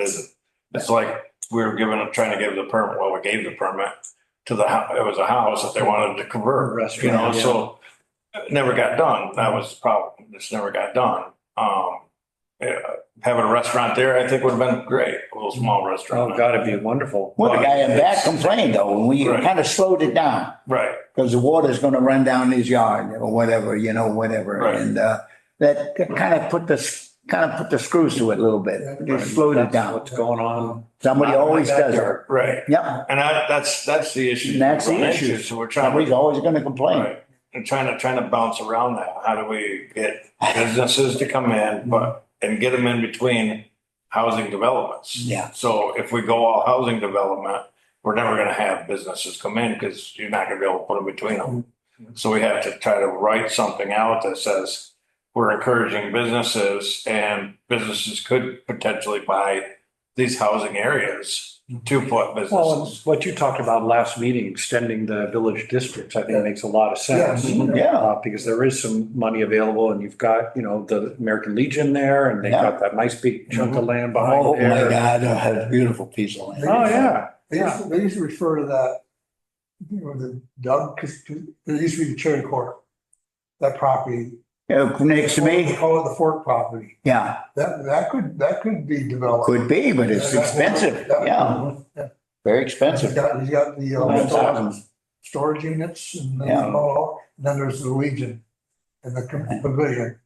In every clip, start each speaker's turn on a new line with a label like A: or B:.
A: It's it's like we were given, trying to give the permit, well, we gave the permit to the, hou- it was a house that they wanted to convert, you know,
B: Restaurant, yeah.
A: so it never got done. That was the problem. This never got done. Um, yeah, having a restaurant there, I think would have been great, a little small restaurant.
B: Oh, God, it'd be wonderful.
C: Well, the guy in back complained though, and we
A: Right.
C: kind of slowed it down
A: Right,
C: because the water's going to run down his yard or whatever, you know, whatever.
A: Right.
C: And uh, that kind of put the, kind of put the screws to it a little bit. It slowed it
B: That's
C: down.
B: What's going on?
C: Somebody always does it.
A: right.
C: Yep,
A: And I, that's, that's the issue.
C: And that's the
A: Right,
C: issue.
A: So we're trying
C: somebody's
A: to,
C: always going to complain.
A: right, and trying to, trying to bounce around that. How do we get businesses to come in, but, and get them in between housing developments?
C: Yeah.
A: So if we go all housing development, we're never gonna have businesses come in because you're not gonna be able to put them between them. So we have to try to write something out that says we're encouraging businesses and businesses could potentially buy these housing areas to put
B: Well, and
A: businesses.
B: what you talked about last meeting, extending the village districts, I think makes a lot of sense.
A: Yes.
C: Yeah.
B: Uh, Because there is some money available and you've got, you know, the American Legion there and they've got that nice big chunk of land
C: Oh,
B: behind
C: my
B: there.
C: God, I had a beautiful piece of land.
B: Oh, yeah,
D: They used, to- they used to refer to that, you know, the Doug, because there used to be the Cherry Court, that property.
C: Uh, Next to
D: They
C: me,
D: Call it the Fork property.
C: yeah,
D: That, that could, that could be developed.
C: could be, but it's expensive. Yeah, very
D: He's
C: expensive.
D: got, he's got the
C: Hundred
D: uh,
C: thousand.
D: storage units and then,
C: Yeah.
D: all- and then there's the Legion and the com- pavilion.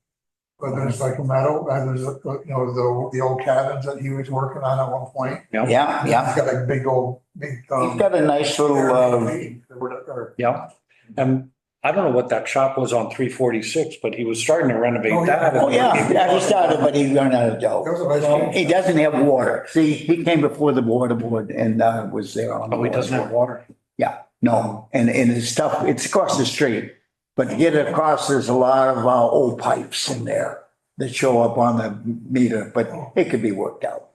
D: But there's like a metal, and there's, uh, you know, the, the old cabins that he was working on at one point.
C: Yeah, yeah.
D: He's got a big old, big. um,
C: You've got a nice little, uh,
D: Airbnb or whatever, or-
B: yeah. And I don't know what that shop was on three forty-six, but he was starting to renovate
D: Oh, yeah.
B: that.
C: oh, yeah, yeah, he started, but he ran out of dough.
D: That was a nice game.
C: He doesn't have water. See, he came before the water board and uh, was there on. the
B: Oh, he doesn't have
C: water board.
B: water.
C: No, and, and it's tough. It's across the street. But to get across, there's a lot of uh, old pipes in there that show up on the meter, but it could be worked out.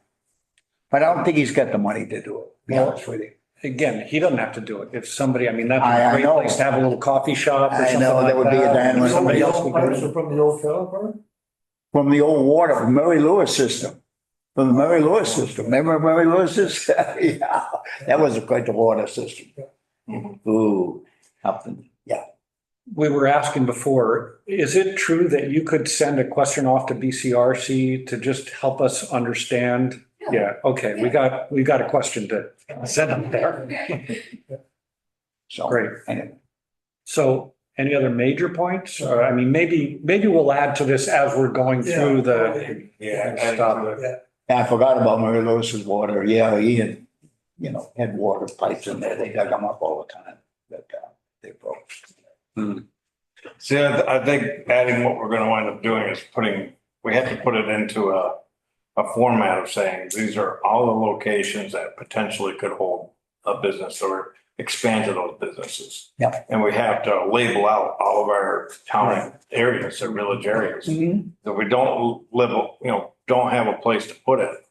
C: But I don't think he's got the money to do it, to be honest with you.
B: Again, he doesn't have to do it. If somebody, I mean,
C: I- I
B: that's a great
C: know.
B: place to have a little coffee shop or
C: I
B: something
C: know,
B: like
C: that would be a dynamite.
B: that. Somebody else could
D: From the
B: do
D: old
B: it.
D: pipes or From the old fill plant?
C: From the old water, from Mary Lewis system, from the Mary Lewis system. Remember Mary Lewis's? Yeah, that was quite the water system.
A: Mhm.
B: Mm-hmm.
C: Ooh, up in
B: we were asking before, is it true that you could send a question off to BCRC to just help us understand? Yeah, okay, we got, we got a question to send up there.
C: So.
B: Great.
C: Anyway.
B: So any other major points? Or, I mean, maybe, maybe we'll add to this as we're going through the,
A: Yeah.
B: Yeah, stop it.
C: I forgot about Mary Lewis's water. Yeah, he had, you know, had water pipes in there. They dug them up all the time. But uh, they broke.
A: See, I, th- I think adding what we're gonna wind up doing is putting, we have to put it into a, a format of saying, these are all the locations that potentially could hold a business or expand to those businesses.
C: Yep.
A: And we have to label out all of our town areas or village areas. If we don't level, you know, don't have a place to put it,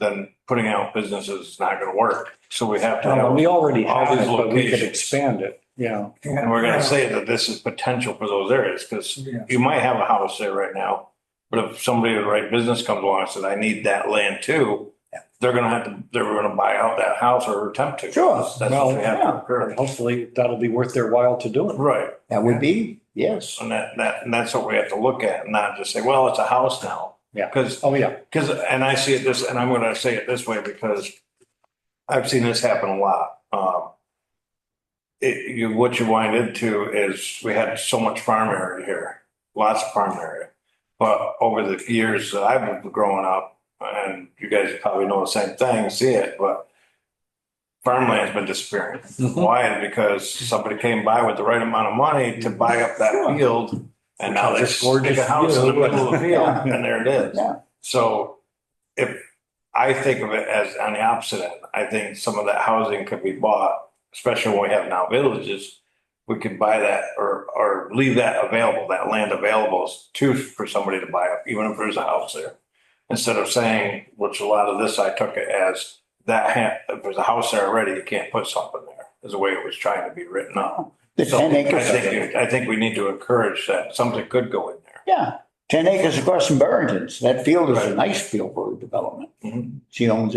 A: then putting out businesses is not gonna work. So we have to have.
B: Uh, we already
A: All
B: have
A: these
B: it, but we could
A: locations.
B: expand it, yeah.
A: And we're gonna say that this is potential for those areas, because
D: Yeah.
A: you might have a house there right now. But if somebody with the right business comes along and says, I need that land too, they're gonna have to, they're gonna buy out that house or attempt to.
C: Sure.
A: That's what we have to encourage.
B: Hopefully that'll be worth their while to do it.
A: Right,
C: That would be, yes.
A: and that, that, and that's what we have to look at, not just say, well, it's a house now.
B: Yeah.
A: Because
B: Oh, yeah,
A: Because, and I see it this, and I'm gonna say it this way because I've seen this happen a lot. Um, It, you, what you wind into is, we had so much farm area here, lots of farm area. But over the years that I've been growing up, and you guys probably know the same thing, see it, but farmland's been disappearing.
B: Mhm.
A: Why? Because somebody came by with the right amount of money to buy up that field. And now they
B: Just gorgeous
A: stick a house in the
B: field.
A: middle of the field, and there it is.
C: Yeah.
A: So if, I think of it as on the opposite end, I think some of that housing could be bought, especially when we have now villages. We could buy that or, or leave that available, that land available to, for somebody to buy up, even if there's a house there. Instead of saying, which a lot of this I took it as, that ha- if there's a house there already, you can't put something there, is the way it was trying to be written up.
C: The
A: So
C: 10
A: I
C: acres. of it.
A: think, I think we need to encourage that something could go in there.
C: Yeah, 10 acres across from Barrington's. That field is a
A: Right.
C: nice field for development.
A: Mhm.
C: She owns